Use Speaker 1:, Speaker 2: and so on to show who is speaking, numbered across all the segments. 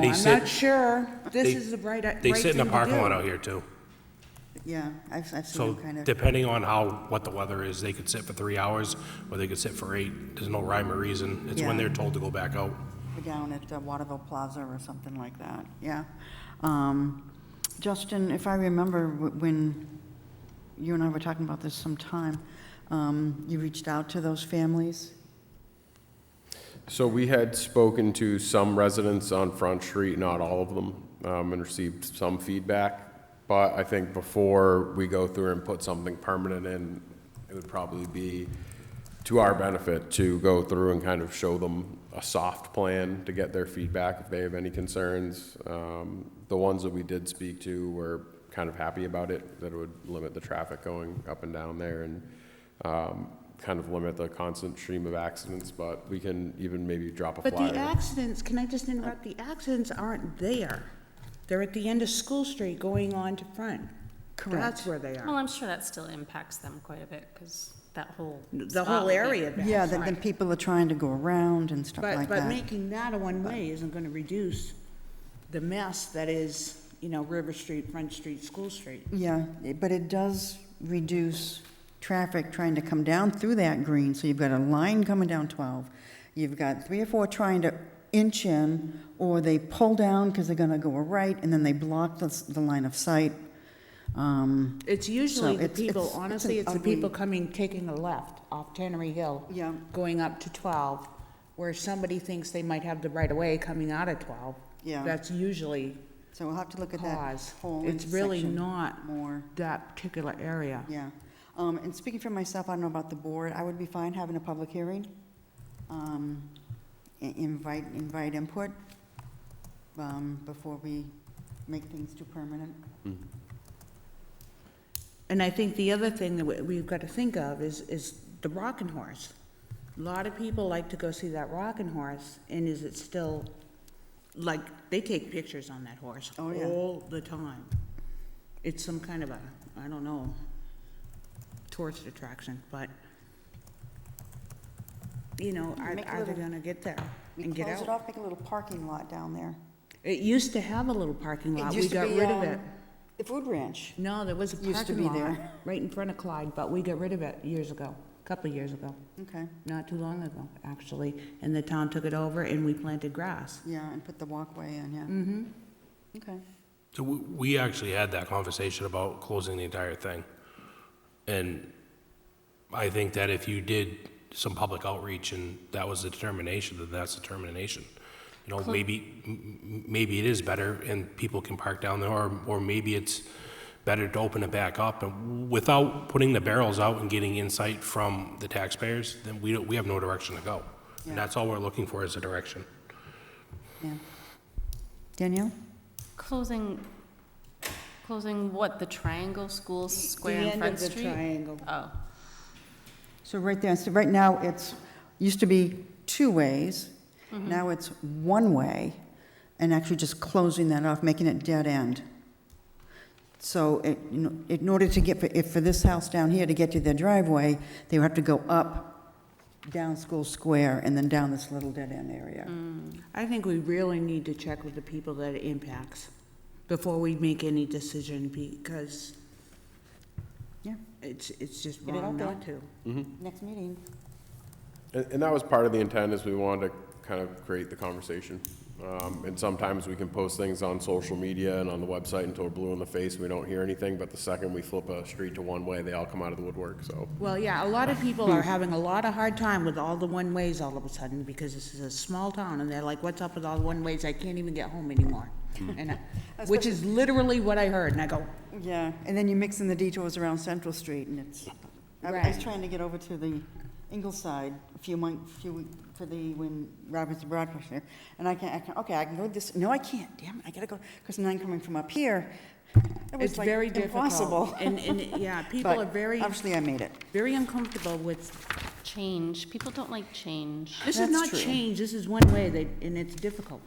Speaker 1: They
Speaker 2: I'm
Speaker 1: sit-
Speaker 2: not sure. This
Speaker 1: they-
Speaker 2: is the right, right
Speaker 1: They
Speaker 2: thing
Speaker 1: sit in the
Speaker 2: to
Speaker 1: parking
Speaker 2: do.
Speaker 1: lot out here too.
Speaker 2: Yeah, I've, I've seen
Speaker 1: So
Speaker 2: them kind of,
Speaker 1: depending on how, what the weather is, they could sit for three hours or they could sit for eight. There's no rhyme or reason. It's when
Speaker 2: Yeah.
Speaker 1: they're told to go back out.
Speaker 2: down at uh, Waterville Plaza or something like that, yeah. Um, Justin, if I remember, wh- when you and I were talking about this sometime, um, you reached out to those families?
Speaker 3: So we had spoken to some residents on Front Street, not all of them, um, and received some feedback. But I think before we go through and put something permanent in, it would probably be to our benefit to go through and kind of show them a soft plan to get their feedback if they have any concerns. Um, The ones that we did speak to were kind of happy about it, that it would limit the traffic going up and down there and um, kind of limit the constant stream of accidents, but we can even maybe drop a
Speaker 4: But the
Speaker 3: flyer.
Speaker 4: accidents, can I just interrupt? The accidents aren't there. They're at the end of School Street going on to Front.
Speaker 2: Correct.
Speaker 4: That's where they
Speaker 5: Well,
Speaker 4: are.
Speaker 5: I'm sure that still impacts them quite a bit, because that whole.
Speaker 4: The whole area there.
Speaker 2: Yeah, then, then people are trying to go around and stuff
Speaker 4: But,
Speaker 2: like
Speaker 4: but
Speaker 2: that.
Speaker 4: making that a one-way isn't gonna reduce the mess that is, you know, River Street, Front Street, School Street.
Speaker 2: Yeah, it- but it does reduce traffic trying to come down through that green, so you've got a line coming down 12. You've got three or four trying to inch in, or they pull down because they're gonna go a right, and then they block the, s- the line of sight. Um,
Speaker 4: It's usually the
Speaker 2: it's- it's-
Speaker 4: people,
Speaker 2: it's an
Speaker 4: honestly, it's the
Speaker 2: ugly-
Speaker 4: people coming, taking a left off Tannery Hill.
Speaker 2: Yeah.
Speaker 4: Going up to twelve, where somebody thinks they might have the right of way coming out of twelve.
Speaker 2: Yeah.
Speaker 4: That's usually
Speaker 2: So we'll have to look at that
Speaker 4: cause.
Speaker 2: whole
Speaker 4: It's really
Speaker 2: intersection
Speaker 4: not
Speaker 2: More.
Speaker 4: that particular area.
Speaker 2: Yeah, um, and speaking for myself, I don't know about the board, I would be fine having a public hearing. Um, i- invite, invite input, um, before we make things too permanent.
Speaker 4: And I think the other thing that we- we've got to think of is, is the Rockin' Horse. A lot of people like to go see that Rockin' Horse, and is it still, like, they take pictures on that horse
Speaker 2: Oh, yeah.
Speaker 4: all the time. It's some kind of a, I don't know, tourist attraction, but, you know, are,
Speaker 2: Make a
Speaker 4: are they
Speaker 2: little-
Speaker 4: gonna get there
Speaker 2: We
Speaker 4: and get
Speaker 2: Close it
Speaker 4: out?
Speaker 2: off, make a little parking lot down there.
Speaker 4: It used to have a little parking
Speaker 2: It
Speaker 4: lot, we
Speaker 2: used to
Speaker 4: got
Speaker 2: be,
Speaker 4: rid of
Speaker 2: um,
Speaker 4: it.
Speaker 2: The food ranch.
Speaker 4: No, there was a
Speaker 2: Used to be
Speaker 4: parking lot
Speaker 2: there.
Speaker 4: right in front of Clyde, but we got rid of it years ago, a couple of years ago,
Speaker 2: Okay,
Speaker 4: not too long ago, actually. And the town took it over and we planted grass.
Speaker 2: yeah, and put the walkway in, yeah. Mm-hmm. Okay,
Speaker 1: So we, we actually had that conversation about closing the entire thing. And I think that if you did some public outreach and that was the determination, then that's the determination. You know, maybe, m- m- maybe it is better and people can park down there, or, or maybe it's better to open it back up and without putting the barrels out and getting insight from the taxpayers, then we don't, we have no direction to go.
Speaker 2: Yeah.
Speaker 1: And that's all we're looking for is a direction.
Speaker 2: yeah. Danielle?
Speaker 5: Closing, closing what, the triangle school square
Speaker 4: The
Speaker 5: in
Speaker 4: end
Speaker 5: Front
Speaker 4: of the
Speaker 5: Street?
Speaker 4: triangle.
Speaker 5: Oh,
Speaker 2: So right there, so right now, it's, used to be two ways, now it's one way, and actually just closing that off, making it dead end. So it, you know, in order to get, if for this house down here to get to their driveway, they would have to go up, down School Square, and then down this little dead end area.
Speaker 4: I think we really need to check with the people that it impacts before we make any decision because
Speaker 2: Yeah,
Speaker 4: it's, it's just
Speaker 2: Get it
Speaker 4: wrong
Speaker 2: out there.
Speaker 4: not to.
Speaker 2: next meeting.
Speaker 3: And, and that was part of the intent, is we wanted to kind of create the conversation. Um, and sometimes we can post things on social media and on the website until we're blue in the face, and we don't hear anything, but the second we flip a street to one-way, they all come out of the woodwork, so.
Speaker 4: Well, yeah, a lot of people are having a lot of hard time with all the one-ways all of a sudden, because this is a small town, and they're like, what's up with all the one-ways? I can't even get home anymore.
Speaker 2: Hmm.
Speaker 4: And, I- which is literally what I heard, and I go,
Speaker 2: Yeah, and then you mix in the detours around Central Street, and it's, I I was
Speaker 4: Right.
Speaker 2: trying to get over to the Ingleside a few months, few, week- for the, when Roberts and Broad was here, and I can't, I can, okay, I can go this, no, I can't, damn it, I gotta go, because now I'm coming from up here. It was
Speaker 4: it's
Speaker 2: like
Speaker 4: very difficult.
Speaker 2: impossible.
Speaker 4: And, and, yeah, people
Speaker 2: But
Speaker 4: are very,
Speaker 2: Obviously, I made it.
Speaker 4: very uncomfortable with,
Speaker 5: change, people don't like change.
Speaker 4: this is
Speaker 2: That's
Speaker 4: not
Speaker 2: true.
Speaker 4: change, this is one way, they, and it's difficult.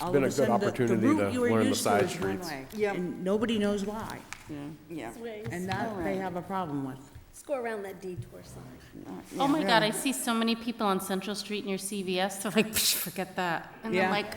Speaker 4: All
Speaker 3: Been
Speaker 4: of
Speaker 3: a good
Speaker 4: sudden, the-
Speaker 3: opportunity
Speaker 4: route
Speaker 3: to
Speaker 4: you were
Speaker 3: learn the
Speaker 4: used
Speaker 3: side
Speaker 4: is one
Speaker 3: streets.
Speaker 4: way,
Speaker 2: Yep.
Speaker 4: And nobody knows why,
Speaker 2: Yeah.
Speaker 4: and that they have a problem with.
Speaker 6: Let's go around that detour sign.
Speaker 5: Oh my God,
Speaker 2: really.
Speaker 5: I see so many people on Central Street near CVS, they're like, "Psh, forget that. And
Speaker 4: Yeah.
Speaker 5: I'm like,